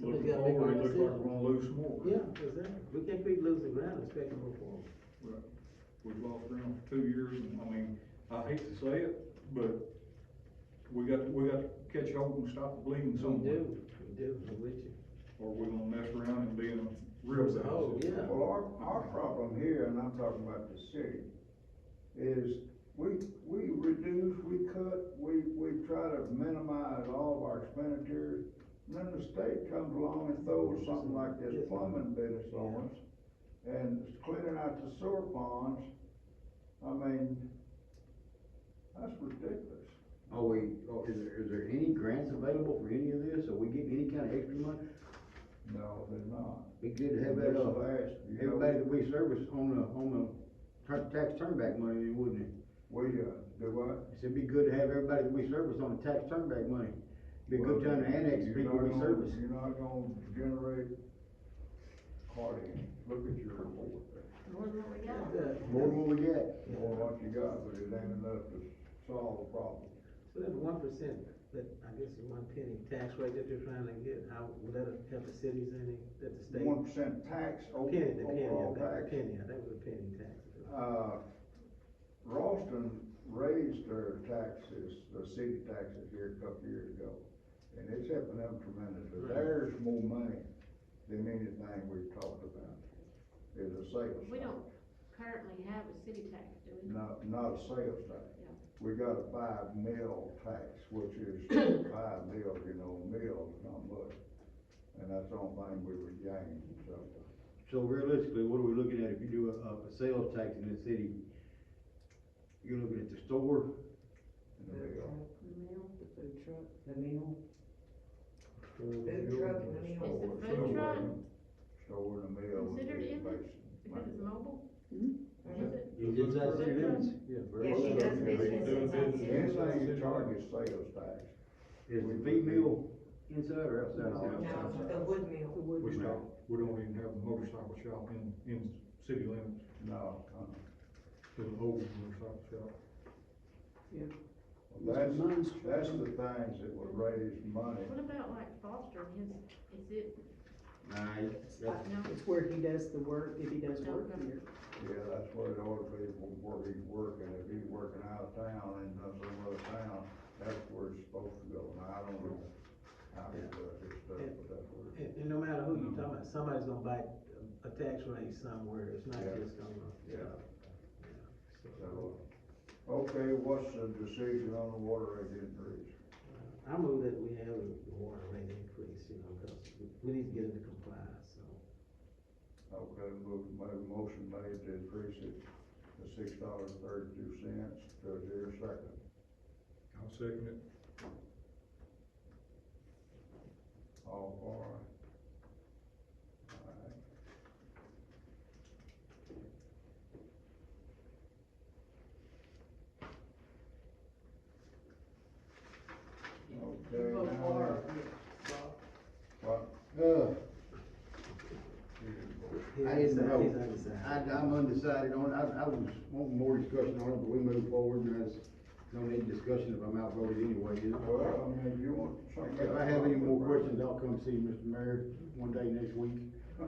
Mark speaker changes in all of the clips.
Speaker 1: gotta make our
Speaker 2: forward, it looks like
Speaker 1: decision.
Speaker 2: we're gonna lose some more.
Speaker 1: Yeah, exactly, we can't keep losing ground, expecting more forward.
Speaker 2: Right. We've lost ground for two years, and I mean, I hate to say it, but we got, we got to catch hold and stop the bleeding
Speaker 1: We
Speaker 2: somewhere.
Speaker 1: do, we do, I'm with you.
Speaker 2: Or we're gonna mess around and be in a real bad
Speaker 1: Oh,
Speaker 2: situation.
Speaker 1: yeah.
Speaker 3: Well, our, our problem here, and I'm talking about the city, is we, we reduce, we cut, we, we try to minimize all of our expenditures. And then the state comes along and throws something like this plumbing business on us, and cleaning out the sewer ponds. I mean, that's ridiculous.
Speaker 4: Are we, oh, is there, is there any grants available for any of this? Are we getting any kind of extra money?
Speaker 3: No, they're not.
Speaker 4: Be good to have that,
Speaker 3: Just
Speaker 4: uh,
Speaker 3: last, you know,
Speaker 4: everybody that we service on the, on the tur- tax turnback money, then, wouldn't it?
Speaker 3: We, uh, do what?
Speaker 4: It's, it'd be good to have everybody that we service on the tax turnback money. Be a good time to annex
Speaker 3: You're
Speaker 4: people
Speaker 3: not
Speaker 4: we
Speaker 3: gonna-
Speaker 4: service.
Speaker 3: You're not gonna generate hardly, look at your report,
Speaker 5: More than what we got.
Speaker 1: Exactly.
Speaker 4: More than what we got.
Speaker 3: or what you got, but it ain't enough to solve the problem.
Speaker 1: So that one percent, that, I guess is one penny tax rate that you're trying to get, how, will that help the cities any, that the state?
Speaker 3: One percent tax, o-
Speaker 1: Penny, the penny,
Speaker 3: overall
Speaker 1: I think, the penny,
Speaker 3: tax.
Speaker 1: I think it was a penny tax.
Speaker 3: Uh, Ralston raised their taxes, the city taxes here a couple years ago, and it's helping them tremendously.
Speaker 1: Right.
Speaker 3: There's more money than anything we've talked about, is the sales
Speaker 5: We
Speaker 3: tax.
Speaker 5: don't currently have a city tax, do we?
Speaker 3: Not, not a sales tax.
Speaker 5: Yeah.
Speaker 3: We got a five mil tax, which is five mil, you know, mil is not much. And that's the only thing we were gaining, so.
Speaker 4: So realistically, what are we looking at if you do a, a a sales tax in the city? You're looking at the store,
Speaker 3: in the mill.
Speaker 6: The food truck, the meal, food truck, the
Speaker 5: Is
Speaker 6: meal.
Speaker 5: the
Speaker 3: Store-
Speaker 5: food
Speaker 3: store-
Speaker 5: truck
Speaker 3: Store in the mill. would be
Speaker 5: considered in
Speaker 3: basic.
Speaker 5: Because it's mobile?
Speaker 6: Mhm.
Speaker 5: Is it?
Speaker 4: it's inside city limits.
Speaker 1: Yeah,
Speaker 6: Yeah, she does
Speaker 3: Yeah,
Speaker 6: business
Speaker 2: doing
Speaker 6: inside
Speaker 2: business.
Speaker 6: city.
Speaker 3: Anything you charge is sales tax.
Speaker 4: Is the feed mill inside or outside?
Speaker 3: No.
Speaker 6: No, the wood meal.
Speaker 2: We stop, we don't even have a motorcycle shop in, in city limits,
Speaker 3: No, uh-uh.
Speaker 2: there's an old motorcycle shop.
Speaker 3: that's, that's the things that would raise money.
Speaker 5: What about like Foster, his, is it,
Speaker 4: Nah, it's- that's-
Speaker 5: no,
Speaker 7: It's where he does the work, if he does work
Speaker 5: Okay.
Speaker 7: here.
Speaker 3: Yeah, that's where the old people work, he's working, if he's working out of town and does some other town, that's where it's supposed to go, and I don't know how he does his stuff, but that's where.
Speaker 1: And, and no matter who you're talking about, somebody's gonna bite a- a tax rate somewhere, it's not
Speaker 3: Yeah.
Speaker 1: just gonna,
Speaker 3: Yeah.
Speaker 1: so.
Speaker 3: So, Okay, what's the decision on the water rate increase?
Speaker 1: uh, I move that we have a water rate increase, you know, cause we- we need to get into compliance, so.
Speaker 3: Okay, move, my motion made to increase it to six dollars thirty-two cents, does your second?
Speaker 2: I'll second it.
Speaker 3: All for it? All right. Okay,
Speaker 6: Go
Speaker 3: now
Speaker 6: far.
Speaker 3: that- What?
Speaker 4: Uh,
Speaker 1: He's
Speaker 4: I didn't
Speaker 1: undecided,
Speaker 4: know.
Speaker 1: He's undecided.
Speaker 4: I, I'm undecided on, it. I, I was wanting more discussion on it, but we move forward and there's no need discussion if I'm outvoted anyway, is it?
Speaker 3: Well, I mean, you want something.
Speaker 4: If I have any more questions, I'll come see Mr. Mayor one day next week. We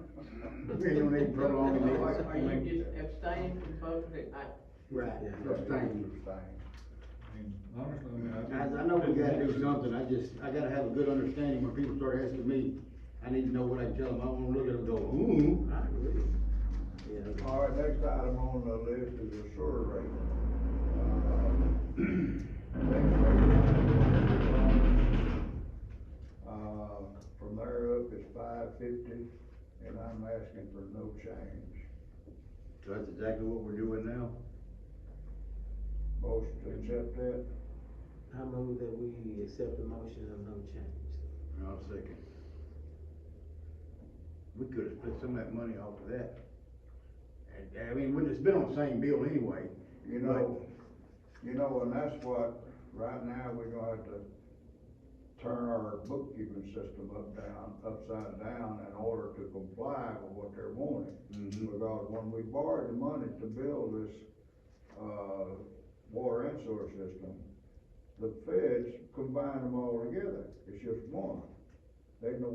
Speaker 4: ain't gonna need to prolong the meeting.
Speaker 8: Are you just abstaining from voting? I,
Speaker 4: Right,
Speaker 1: Yeah.
Speaker 4: abstain.
Speaker 3: Abstain.
Speaker 2: I mean, honestly, I mean, I.
Speaker 4: Guys, I know we gotta do something, I just, I gotta have a good understanding when people start asking me, I need to know what I can tell them, I don't wanna look at them and go, ooh.
Speaker 1: I agree. Yeah.
Speaker 3: All right, next item on the list is the sewer rate. Uh, next rate, Uh, from there up is five fifty, and I'm asking for no change.
Speaker 4: So that's exactly what we're doing now.
Speaker 3: Motion to accept that,
Speaker 1: I move that we accept the motion of no change.
Speaker 4: I'll second. We could've split some of that money off of that. And, I mean, when it's been on the same bill anyway.
Speaker 3: you know, you know, and that's what, right now, we're gonna have to turn our bookkeeping system up down, upside down in order to comply with what they're wanting.
Speaker 4: Mhm.
Speaker 3: Because when we borrowed the money to build this, uh, water and sewer system, the feds combined them all together, it's just one. They know